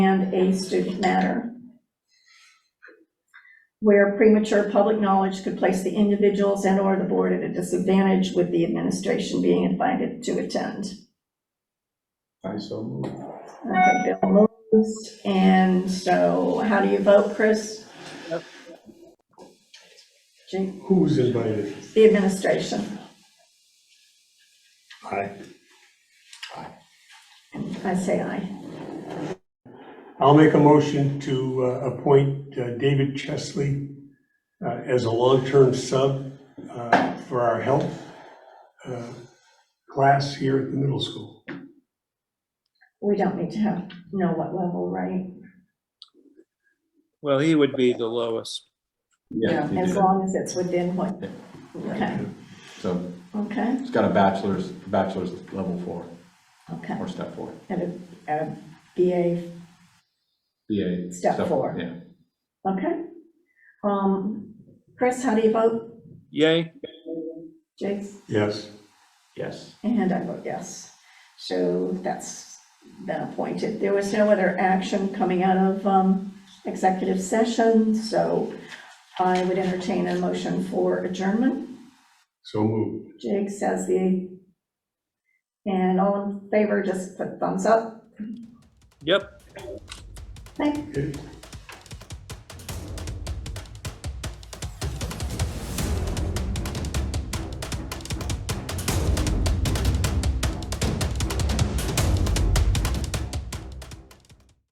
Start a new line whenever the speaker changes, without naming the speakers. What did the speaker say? and a student matter. Where premature public knowledge could place the individuals and/or the board at a disadvantage with the administration being invited to attend.
I so move.
Okay, Bill moves, and so how do you vote, Chris? Gee,
Who's invited?
The administration.
Aye.
I say aye.
I'll make a motion to uh, appoint uh, David Chesley uh, as a long-term sub uh, for our health uh, class here at the middle school.
We don't need to have, know what level, right?
Well, he would be the lowest.
Yeah. he
As
did.
long as it's within what, okay,
So
okay,
it's got a bachelor's, bachelor's level four,
okay.
or step four.
At a, at a BA,
BA.
Step four.
Yeah.
okay. Um, Chris, how do you vote?
Yay,
Jake?
Yes.
Yes.
And I vote yes. So that's been appointed. There was no other action coming out of um, executive session, so I would entertain a motion for adjournment.
So moved.
Jake says the, and all in favor, just put thumbs up.
yep.
Thank
Okay.